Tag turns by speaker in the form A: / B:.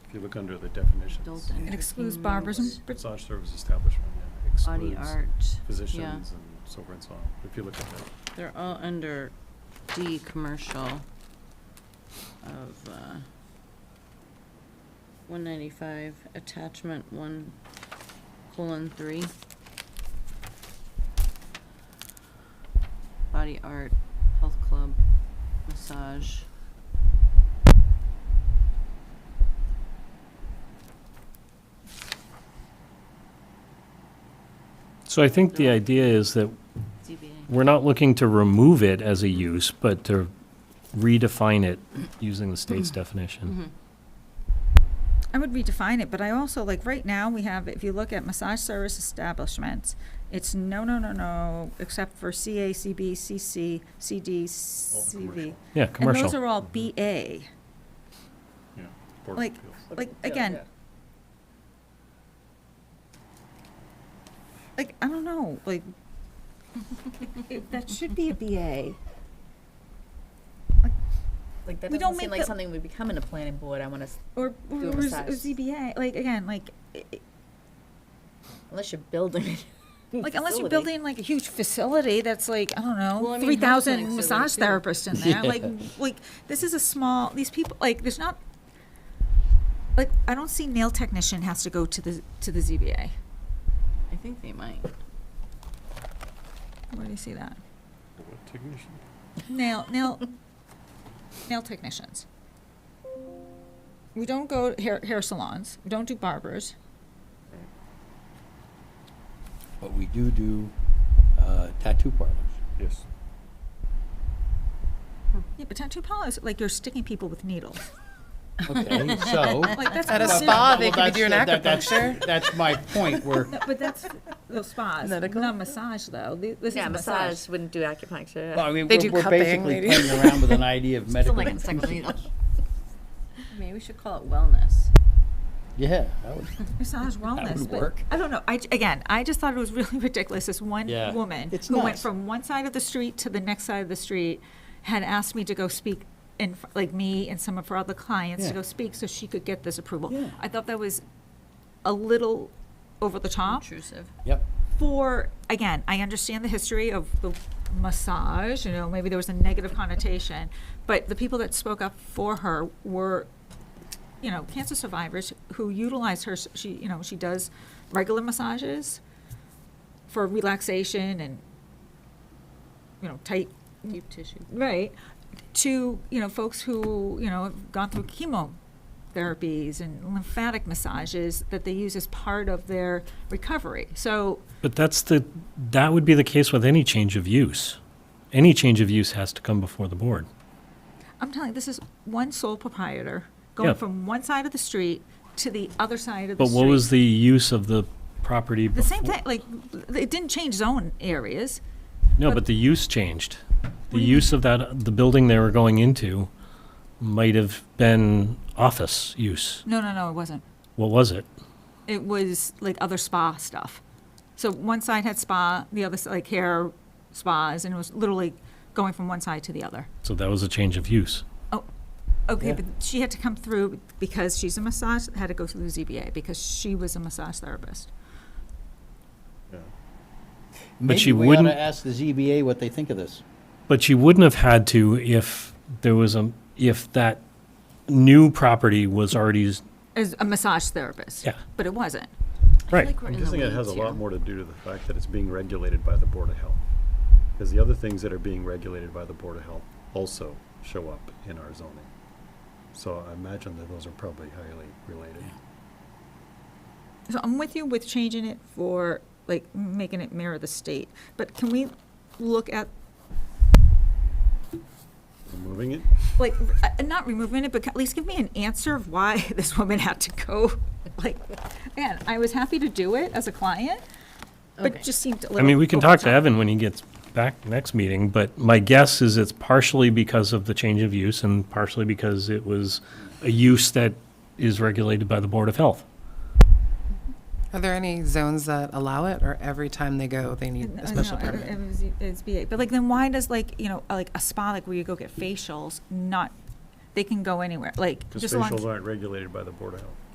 A: if you look under the definitions.
B: Adult and
C: It excludes barbarism.
B: entertainment,
A: Massage service establishment yeah,
B: Body
A: excludes
B: art, yeah.
A: physicians and so forth and so on, if you look at that.
B: They're all under D, commercial of, uh, one ninety-five, attachment one, colon, three. Body art, health club, massage.
D: So I think the idea is that
B: ZBA.
D: we're not looking to remove it as a use, but to redefine it using the state's
C: Mm-hmm.
B: Mm-hmm.
D: definition.
C: I would redefine it, but I also, like, right now, we have, if you look at massage service establishments, it's no, no, no, no, except for CA, CB, CC, CD, CV.
A: commercial.
D: Yeah,
C: And those
D: commercial.
C: are all BA.
A: Yeah. Board of
C: Like-
A: Appeals.
B: uh,
C: Like, again. Like, I don't know, like, it- that should be a BA.
E: Like that
C: We
E: doesn't
C: don't
E: seem
C: make
E: like
C: the-
E: something would become in a planning board. I want to,
C: Or, or
E: Do a
C: or
E: massage.
C: ZBA, like, again, like, i- i-
E: unless you're building. a new
C: like unless you're
E: facility.
C: building like a huge facility that's like, I don't know,
B: Well, I mean, health
C: three thousand
B: clinics are
C: massage
B: there, too.
C: therapists in there. Like like this is a small these people like there's not like I don't see nail technician has to go to the to the ZBA.
B: I think they might.
C: Where do you see that?
A: What technician?
C: Nail nail nail technicians. We don't go to hair hair salons. We don't do barbers.
F: But we do do uh, tattoo parlors.
A: Yes.
C: Yeah, but tattoo parlors like you're sticking people with needles.
F: Okay, so.
C: Like that's
E: At a
C: not-
E: spa, they
F: Well,
E: could be doing
F: that's- that- that's-
E: acupuncture.
F: That's my point, where,
C: No, but that's those spas.
E: Medical?
C: Not massage though. Th- This
E: Yeah,
C: is
E: massage wouldn't do acupuncture.
F: well, I mean,
E: they
F: we're
E: do
F: we're
E: cupping.
F: basically
E: They do.
F: playing around with an idea of
E: Still
F: medical.
E: like a second
F: inclusion.
E: needle.
B: Maybe we should call it wellness.
F: Yeah, that would,
C: massage wellness.
F: would
C: but
F: work.
C: I don't know. I, again, I just thought it was really ridiculous. This one
F: Yeah.
C: woman
F: It's
C: who went
F: nuts.
C: from one side of the street to the next side of the street had asked me to go speak in fr- like me and some of her other clients to
F: Yeah.
C: go speak so she could get this approval.
F: Yeah.
C: I thought that was a little over the top
B: Intrusive.
F: yep.
C: for again i understand the history of the massage you know maybe there was a negative connotation but the people that spoke up for her were you know cancer survivors who utilize her she you know she does regular massages for relaxation and you know tight
B: Deep tissue.
C: right to you know folks who you know have gone through chemotherapies and lymphatic massages that they use as part of their recovery so
D: But that's the, that would be the case with any change of use. Any change of use has to come before the board.
C: I'm telling you, this is one sole proprietor going
D: Yeah.
C: from one side of the street to the other side of the
D: But
C: street.
D: what was the use of the property
C: the
D: before?
C: same thing? Like it didn't change zone areas.
D: No,
C: but-
D: but the use changed.
C: What do
D: The
C: you
D: use of that, the building they were going into might have been office use.
C: No, no, no, it wasn't.
D: What was it?
C: It was like other spa stuff. So one side had spa, the other s- like hair spas, and it was literally going from one side to the other.
D: So that was a change of use.
C: Okay,
F: Yeah.
C: but she had to come through because she's a massage. Had to go through the ZBA because she was a massage therapist.
D: she
F: Maybe we ought
D: wouldn't-
F: to ask the ZBA what they think of this.
D: But you wouldn't have had to if there was a, if that new property was already, s-
C: As a massage therapist.
D: Yeah.
C: But it wasn't.
D: Right.
B: I feel like we're
A: I'm
B: in the
A: guessing it has a
B: weeds here.
A: lot more to do to the fact that it's being regulated by the Board of Health. Because the other things that are being regulated by the Board of Health also show up in our zoning. So I imagine that those are probably highly related.
C: So I'm with you with changing it for, like, making it mirror the state, but can we look at,
A: Removing it?
C: like, r- uh, not removing it, but at least give me an answer of why this woman had to go? Like, man, I was happy to do it as a client, but
B: Okay.
C: it just seemed a little.
D: I mean, we can
C: over
D: talk
C: the
D: to
C: top.
D: Evan when he gets back next meeting, but my guess is it's partially because of the change of use and partially because it was a use that is regulated by the Board of Health.
G: Are there any zones that allow it, or every time they go, they need
C: Uh,
G: a special
C: no, it-
G: permit?
C: it was- It's BA, but like, then why does like, you know, uh, like a spa, like where you go get facials, not they can go anywhere, like,
A: Because
C: just as long as.
A: facials aren't regulated by the Board of Health.